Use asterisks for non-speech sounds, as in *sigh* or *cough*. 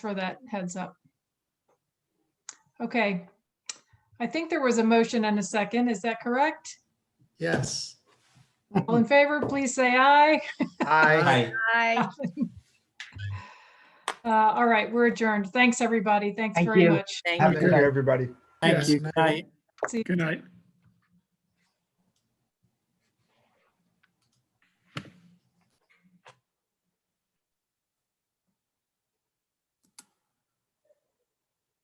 for that heads up. Okay. I think there was a motion and a second. Is that *laughs* correct? Yes. All in favor, please say aye. Aye. Hi, Bye. Uh, All right, we're adjourned. Thanks, everybody. Thanks Thank very you. much. Thank Have you. a good Aye. day, everybody. Yes, thank you. ma'am. Good night. See you. Good night.